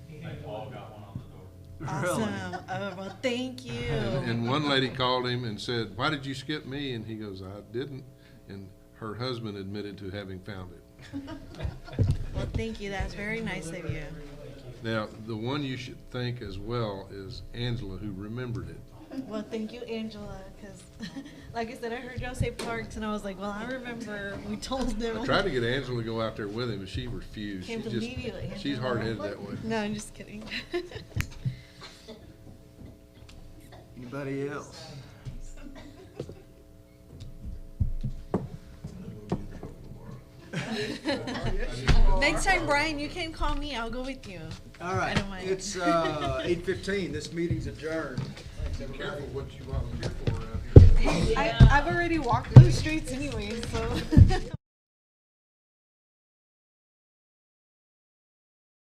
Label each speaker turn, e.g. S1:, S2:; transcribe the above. S1: Really?
S2: Awesome. Oh, well, thank you.
S1: And-
S3: And one lady called him and said, why did you skip me? And he goes, I didn't. And her husband admitted to having found it.
S2: Well, thank you. That's very nice of you.
S3: Now, the one you should thank as well is Angela, who remembered it.
S2: Well, thank you, Angela, because like I said, I heard y'all say parks, and I was like, well, I remember we told them.
S3: I tried to get Angela to go out there with him, and she refused. She
S2: Can't
S3: just-
S2: believe you, Angela.
S3: She's hard-headed that way.
S2: No, I'm just kidding.
S1: Anybody else?
S2: Next time, Brian, you can call me. I'll go with you.
S1: All right,
S2: don't mind.
S1: it's uh, eight fifteen, this meeting's adjourned.
S3: Careful what you volunteer for around here.
S2: I, I've already walked those streets anyway, so.